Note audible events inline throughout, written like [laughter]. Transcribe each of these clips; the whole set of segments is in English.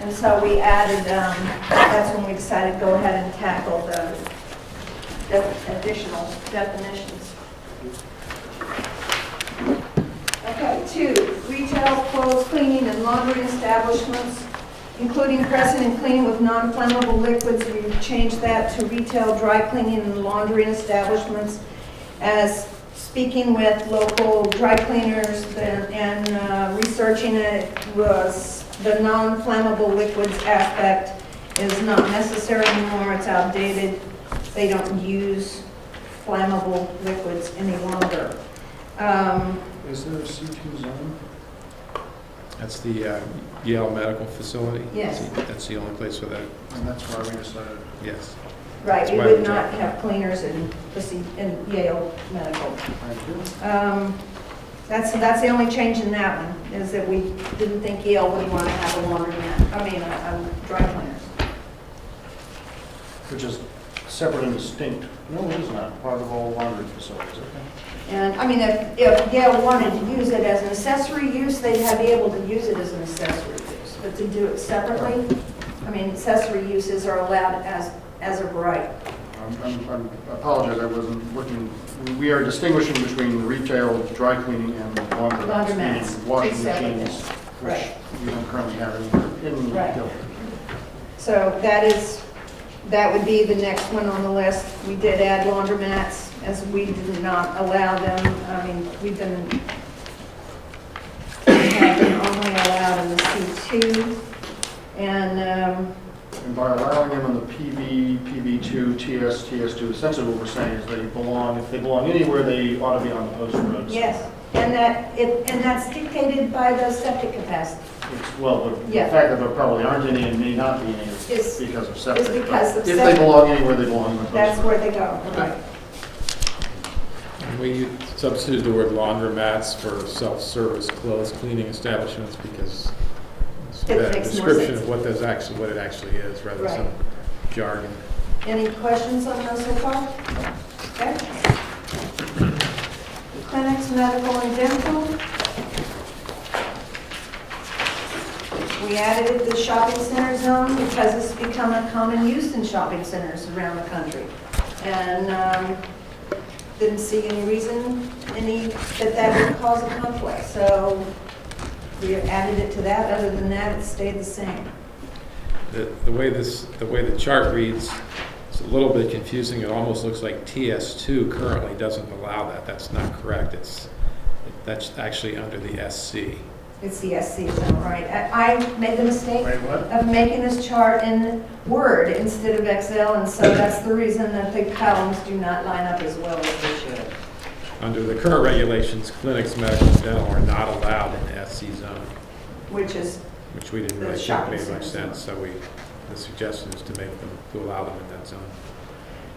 And so we added, um, that's when we decided to go ahead and tackle the def- additional definitions. Okay, two, retail, clothes cleaning, and laundry establishments, including pressing and cleaning with non-flammable liquids. We changed that to retail, dry cleaning, and laundry establishments as speaking with local dry cleaners and and, uh, researching it was the non-flammable liquids aspect is not necessary anymore, it's outdated. They don't use flammable liquids any longer. Um, Is there a C2 zone? That's the uh, Yale Medical Facility? Yes. That's the only place where that, And that's why we decided, yes. Right, That's you why would we not have cleaners in the C- in Yale Medical. thank you. Um, That's, that's the only change in that one, is that we didn't think Yale would want to have a laundromat, I mean, a a dry cleaners. Which is separate and distinct. No, it is not, part of all laundry facilities, okay? And, I mean, if, if Yale wanted to use it as an accessory use, they'd have be able to use it as an accessory use. But to do it separately, I mean, accessory uses are allowed as, as of right. I'm- Um, I'm- I'm- I apologize, I wasn't looking, we are distinguishing between retail, dry cleaning, and laundromats. meaning Laundromats, Washing exactly. machines, which Right. you don't currently have in, in Right. Guilford. So that is, that would be the next one on the list. We did add laundromats, as we did not allow them, I mean, we've been, we have been only allowed in the C2. And, um, And by allowing them on the PB, PB2, TS, TS2, essentially what we're saying is they belong, if they belong anywhere, they ought to be on the post roads. Yes, and that, it- and that's dictated by the septic capacity, It's- Well, the the Yeah. fact that there probably aren't any and may not be any Is- is because of is septic. because but of If septic. they belong anywhere, they belong in the post. that's where they go, Okay. right? And we substituted the word laundromats for self-service clothes cleaning establishments because it's a It better makes more description sense. of what those actually, what it actually is, rather than some jargon. Any questions on those so far? Okay. Clinics, medical and dental. We added the shopping center zone because it's become a common use in shopping centers around the country. And um, didn't see any reason, any, that that would cause a conflict. So we added it to that. Other than that, it stayed the same. The, the way this, the way the chart reads, it's a little bit confusing. It almost looks like TS2 currently doesn't allow that. That's not correct. It's, that's actually under the SC. It's the SC zone, right? I I made the mistake Wait, what? of making this chart in Word instead of Excel, and so that's the reason that the columns do not line up as well as they should. Under the current regulations, clinics, medical, and dental are not allowed in the SC zone, Which is, which we didn't The really think shopping made much center zone. sense, so we, the suggestion is to make them, to allow them in that zone.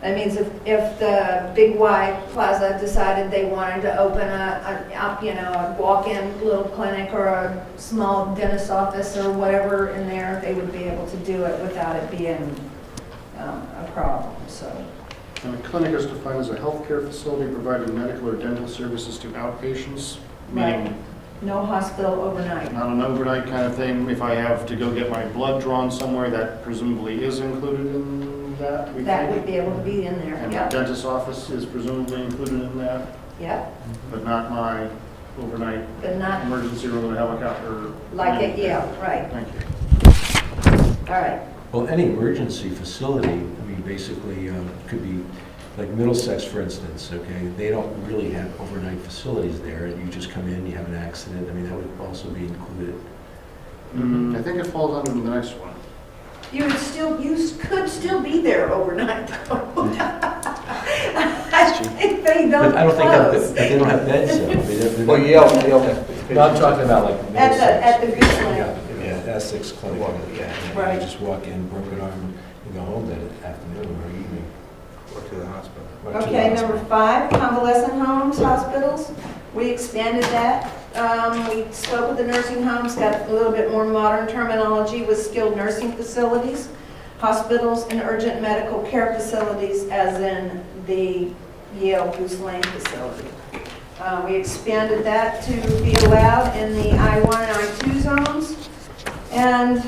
that means if, if the Big Y Plaza decided they wanted to open a, a, up, you know, a walk-in little clinic or a small dentist office or whatever in there, they would be able to do it without it being, um, a problem, so. And a clinic is defined as a healthcare facility providing medical or dental services to outpatients, Right. meaning No hospital overnight. not an overnight kind of thing. If I have to go get my blood drawn somewhere, that presumably is included in that, we That would think. be able to be in there, And my yep, dentist's office is presumably included in that, yep, but not my overnight but not emergency room and helicopter. like it, yeah, right, Thank you. all right. Well, any emergency facility, I mean, basically, um, could be, like Middlesex, for instance, okay? They don't really have overnight facilities there, and you just come in, you have an accident, I mean, that would also be included. Mm, I think it falls under the next one. You would still, you s- could still be there overnight, though. [laughs] I think they But I don't don't think, that- close. but they don't have beds, though. I mean, they're- they're- Well, Yale, Yale. No, I'm talking about like At the, Middlesex. at the Gooseland, Yeah, Essex Clinic, Walk, yeah. Right. You just walk in, broken arm, and go home that afternoon or evening. Or to the hospital. or to the Okay, hospital. number five, convalescent homes, hospitals. We expanded that. Um, We spoke with the nursing homes, got a little bit more modern terminology with skilled nursing facilities, hospitals, and urgent medical care facilities, as in the Yale Goose Lane facility. Uh, We expanded that to be allowed in the I-1 and I-2 zones. And